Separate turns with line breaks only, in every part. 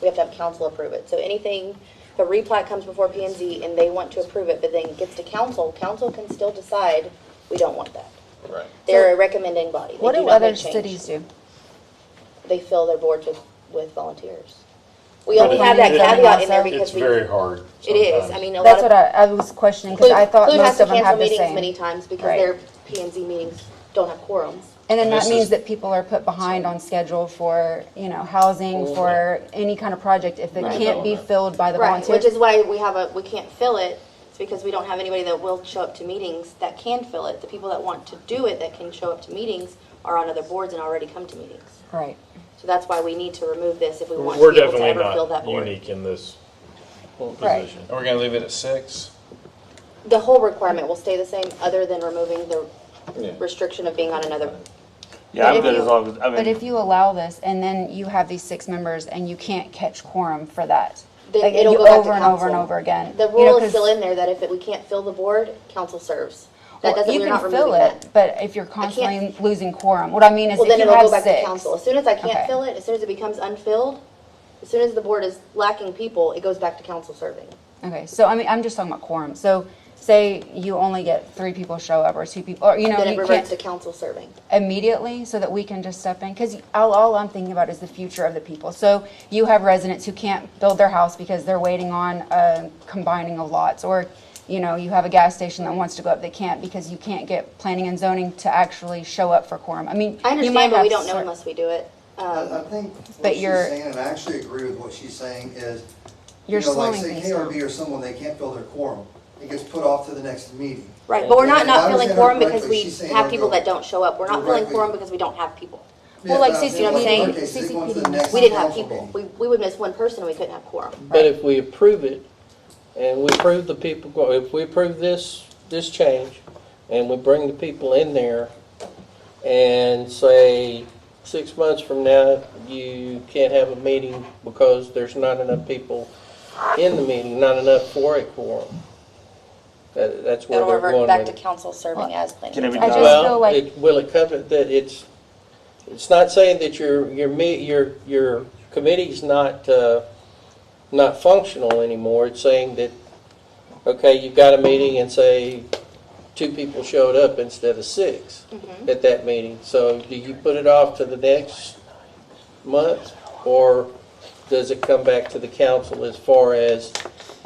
we have to have council approve it. So anything, the replat comes before P and Z and they want to approve it, but then gets to council, council can still decide, we don't want that.
Right.
They're a recommending body. They
What
do
do
not
other
make change.
cities do?
They fill their boards with, with volunteers. We only have that
But it-
caveat in there
It's
because
It's
we.
very hard.
It is, I
sometimes.
mean, a lot of.
That's what I, I was questioning, because I thought
Clute has
most
to
of them
cancel
have the
meetings
same.
Many times because
Right.
their P and Z meetings don't have quorums.
And then
And
that
this
means
is-
that people are put behind on schedule for, you know, housing, for any kind of project, if it
Right.
can't be
Development.
filled by the
Right, which
volunteers.
is why we have a, we can't fill it, it's because we don't have anybody that will show up to meetings that can fill it. The people that want to do it, that can show up to meetings, are on other boards and already come to meetings.
Right.
So that's why we need to remove this if we want
We're
to be able to
definitely
ever fill that
not
board.
unique in this
Right.
position.
Are we gonna leave it at six?
The whole requirement will stay the same, other than removing the
Yeah.
restriction of being on another
Yeah,
But
I'm
if
good
you-
as long as, I
But if
mean,
you allow this, and then you have these six members, and you can't catch quorum for that,
Then
like,
it'll
you-
go back to
over and over and
council.
over again.
The
you know,
rule is
'cause-
still in there that if it- we can't fill the board, council serves. That
well,
doesn't,
you
we're
can
not
fill
removing
it,
that.
But if you're constantly losing quorum, what I mean is
Well,
if
then
you
it'll
have
go back to
six.
council. As soon as I can't
Okay.
fill it, as soon as it becomes unfilled, as soon as the board is lacking people, it goes back to council serving.
Okay, so I mean, I'm just talking about quorum. So say you only get three people show up or two people, or you know,
Then it
you
reverts
can't
to council serving.
immediately so that we can just step in. Because all, all I'm thinking about is the future of the people. So you have residents who can't build their house because they're waiting on uh, combining of lots, or you know, you have a gas station that wants to go up, they can't because you can't get planning and zoning to actually show up for quorum. I mean,
I
you
understand,
might
but we
have
don't know
cer-
unless we do it. Um,
I I think
But
what she's
you're-
saying, and I actually agree with what she's saying, is, you
You're
know, like
slowing
say
things down.
KRB or someone, they can't fill their quorum. It gets put off to the next meeting.
Right, but we're not
And if I
not filling
understand her
quorum because
correctly,
we
she's saying
have
they'll
people
go-
that don't show up. We're not
they'll
filling
go-
quorum because we don't have people.
Well, like
Yeah, but I'm
CCPD,
saying, like, okay, so they go on to the next
We didn't have
council
people.
meeting.
We, we would miss one person and we couldn't have quorum.
But if we approve it, and we approve the people, go- if we approve this, this change, and we bring the people in there, and say, six months from now, you can't have a meeting because there's not enough people in the meeting, not enough for a quorum. That, that's where
It'll
they're
revert
going
back
with
to
it.
council serving as planning.
Can it be
and
done?
zoning.
I just feel
Well,
like-
it, will it cover, that it's, it's not saying that your, your me, your, your committee's not, uh, not functional anymore. It's saying that, okay, you've got a meeting and say, two people showed up instead of six
Mm-hmm.
at that meeting. So do you put it off to the next month? Or does it come back to the council as far as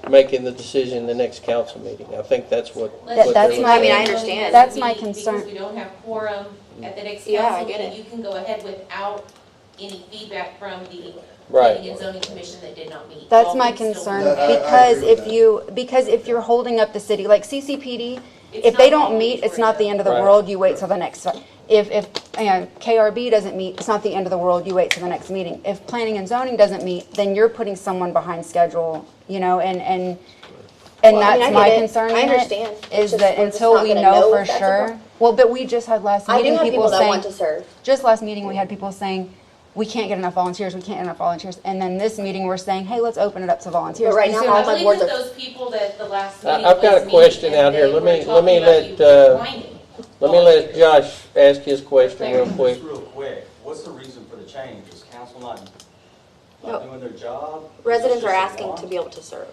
making the decision the next council meeting? I think that's what.
That-
what they're
that's
looking
my-
at.
I mean, I understand.
That's my concern.
Because we don't have quorum at the next
Yeah, I
council
get
meeting,
it.
you can go ahead without any feedback from the
Right.
planning and zoning commission that did not meet.
That's
All
my
can still
concern,
Yeah, I- I agree
because
with
if
that.
you, because if you're holding up the city, like CCPD,
It's
if they
not
don't
always
meet, it's
right
not the
now.
end of the
Right.
world, you wait till the next, if, if, you know, KRB doesn't meet, it's not the end of the world, you wait till the next meeting. If planning and zoning doesn't meet, then you're putting someone behind schedule, you know, and, and, and
Well, I mean,
that's
I
my
get it.
concern in
I
it,
understand. It's
Is
just
that
we're just
until
not
we
gonna know
know for
if that's a
sure,
problem.
well, but we just had last
I do
meeting,
have
people
people that want
saying,
to serve.
just last meeting, we had people saying, we can't get enough volunteers, we can't get enough volunteers. And then this meeting, we're saying, hey, let's open it up to volunteers.
But right
You
now,
see what
all
I'm
I
my
believe
boards
that
are-
those people that the last
I-
meeting
I've got
was
a question
me,
out
and
here.
they
Let
were
me- let me
talking
let,
about you
uh,
whining.
Let me let Josh ask his question real quick.
Just real quick, what's the reason for the change? Is council not,
No.
not doing their job? Is this
Residents are
just a
asking
want?
to be able to serve.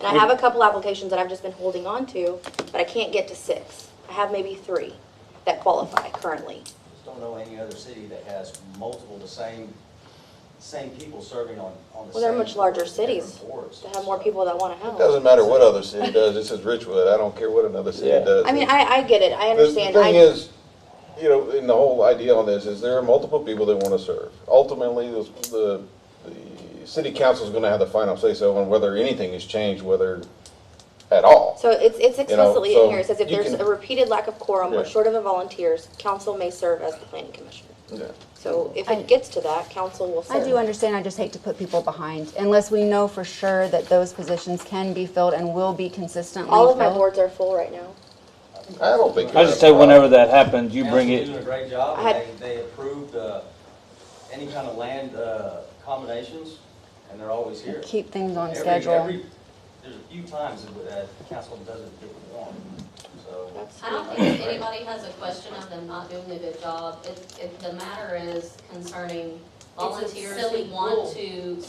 And I have a couple applications that I've just been holding on to, but I can't get to six. I have maybe three that qualify currently.
Just don't know any other city that has multiple, the same, same people serving on, on
Well,
the same.
they're much larger
boards, different
cities
boards.
To have more people that want to help.
Doesn't matter what other city does, this is Richwood, I don't care what another
Yeah.
city does.
I mean, I, I get it, I
The-
understand.
The thing
I-
is, you know, and the whole idea on this is there are multiple people that want to serve. Ultimately, the, the, the city council's gonna have the final say-so on whether anything is changed, whether at all.
So it's, it's explicitly in
so
here, it says if
you
there's
can-
a repeated lack of quorum or
Yeah.
short of the volunteers, council may serve as the planning commission.
Yeah.
So if
I-
it gets to that, council will
I
serve.
do understand, I just hate to put people behind, unless we know for sure that those positions can be filled and will be consistently
All of my
filled.
boards are full right now.
I don't think.
I just say whenever that happens, you bring
Council's doing
it,
a great job,
I
and
had-
they, they approved, uh, any kind of land, uh, combinations, and they're always here.
Keep things on
Every-
schedule.
every- There's a few times that council doesn't get one, so.
I don't think anybody has a question of them not doing a good job. It, it, the matter is concerning
a
volunteers
silly
who
rule.
want to